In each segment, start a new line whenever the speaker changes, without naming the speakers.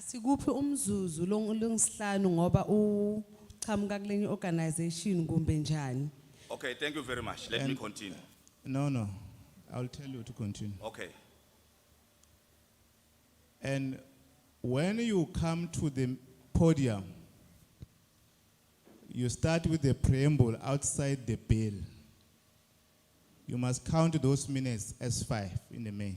Sikuphi umzuzu lo- longisihlanu ngoba uchamuka kulenye organization kumbe njani?
Okay, thank you very much. Let me continue.
No, no, I'll tell you to continue.
Okay.
And when you come to the podium, you start with the preamble outside the bill. You must count those minutes as five in the main.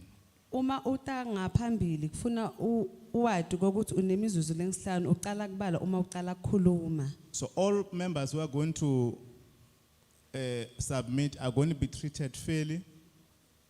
Uma uta ngaphambili kufuna u- uwadi kokuthi unemizuzu lengisihlanu uqala kubala uma uqala kukhuluma.
So all members who are going to uh, submit are going to be treated fairly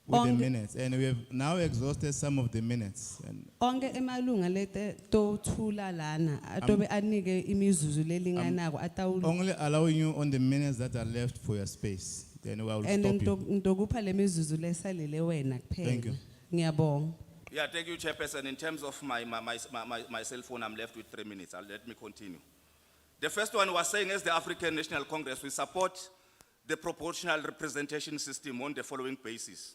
with the
Onke-
minutes. And we have now exhausted some of the minutes. And
Onke emalunga lete to thula lana atobe anike imizuzu lelinganako atawul.
only allowing you on the minutes that are left for your space. Then I will
And
stop you.
ndokupha lemizuzu lesalele wena kuphela.
Thank you.
Ngiyabonga.
Yeah, thank you, Chairperson. In terms of my, my, my, my, my cell phone, I'm left with three minutes. I'll, let me continue. The first one was saying, as the African National Congress, we support the proportional representation system on the following basis.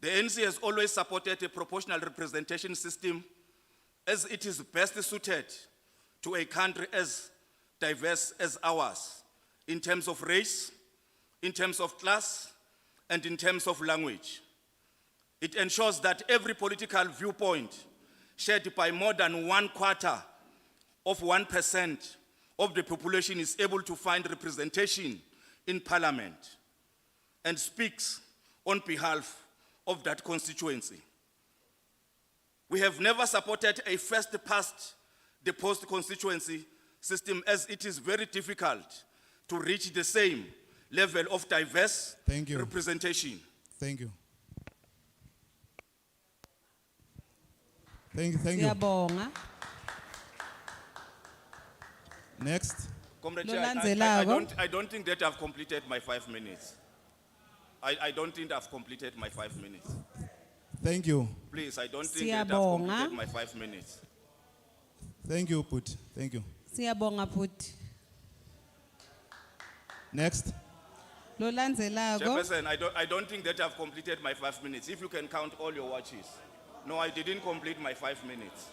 The NC has always supported a proportional representation system as it is best suited to a country as diverse as ours in terms of race, in terms of class, and in terms of language. It ensures that every political viewpoint shared by more than one quarter of 1% of the population is able to find representation in parliament and speaks on behalf of that constituency. We have never supported a first past the post constituency system as it is very difficult to reach the same level of diverse
Thank you.
representation.
Thank you. Thank you, thank you.
Ngiyabonga.
Next,
Comrade
No
Chair, I- I- I, I
landzelako.
don't, I don't think that I've completed my five minutes. I, I don't think I've completed my five minutes.
thank you,
Please, I don't think that I've
Siyabonga.
completed my five minutes.
thank you, Put, thank you.
Siyabonga futhi.
Next,
Lo landzelako.
Chairperson, I don't, I don't think that I've completed my five minutes. If you can count all your watches. No, I didn't complete my five minutes.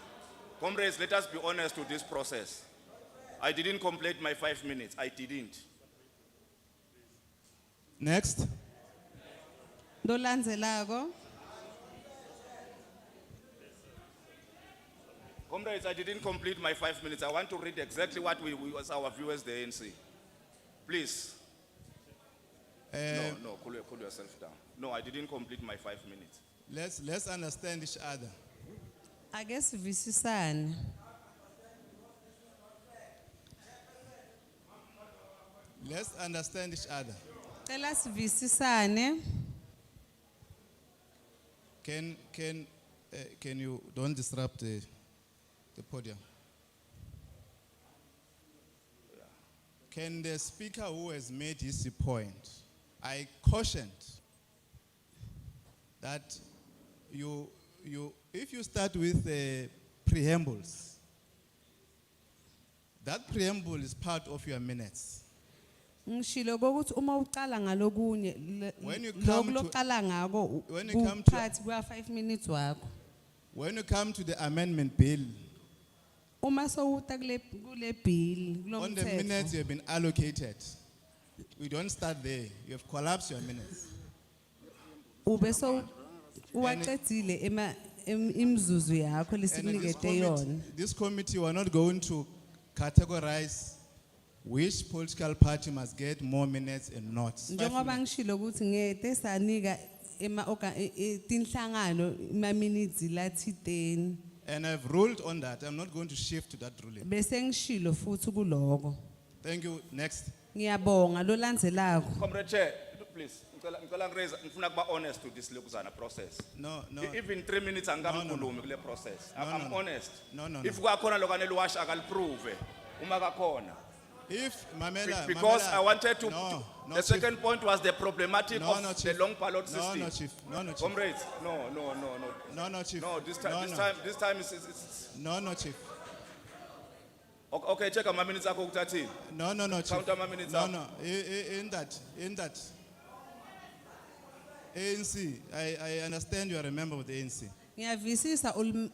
Comrades, let us be honest to this process. I didn't complete my five minutes. I didn't.
next,
Lo landzelako.
Comrades, I didn't complete my five minutes. I want to read exactly what we, we was our viewers, the ANC. Please.
Eh, Uh,
No, no, cool, your- cool yourself down. No, I didn't complete my five minutes.
let's, let's understand each other.
Ake sivisisane.
Let's understand each other.
Cela sivisisane.
Can, can, uh, can you, don't disrupt the, the podium. Can the speaker who has made his point, I cautioned that you, you, if you start with the preambles, that preamble is part of your minutes.
Ngishilo ukuthi uma uqala ngalokunye le-
When you come
loku
to-
loqala ngako
When you come to-
uphathi kwa 5 minutes wakho.
When you come to the amendment bill,
Uma sowuta kule kule bill
On the minutes
kulomthetho.
you have been allocated, we don't start there. You have collapsed your minutes.
Ube so uwaqedile ema im- imzuzu yakho
And this
lesinikete
committee-
yona.
This committee, we are not going to categorize which political party must get more minutes and not. Five
Njengoba
minutes.
ngishilo ukuthi ngete sanika ema orga- e- e- tinhlangano ma minutes lathi 10.
And I've ruled on that. I'm not going to shift to that ruling.
bese ngishilo futhi kuloko
Thank you. Next.
ngiyabonga lo landzelako
Comrade Chair, please, ngicela- ngicela ngiraise- ngifuna kuba honest to this lokuzana process.
No, no.
E- Even three minutes angamkhulumi kule process. I-
No, no,
I'm
no.
honest.
No, no,
If
no.
kwakhona lokaniluwash, akaliprove, uma kakhona.
If,
Be-
Mamela.
Because
Mamela-
I wanted to,
No,
to-
no,
the
Chief.
second point was the problematic
No, no,
of the
Chief.
long ballot
No,
system.
no, chief. No, no, chief.
Comrades, no, no, no, no.
No, no, chief.
No, this time, this
no.
time, this time is, is, is,
No, no, chief.
okay, okay, check my minutes akho kutathini.
No, no, no, Chief.
Counter my minutes
No,
up.
no, I- I- in that, in that. ANC, I, I understand you are a member of the ANC.
ngiyavisisa ulm-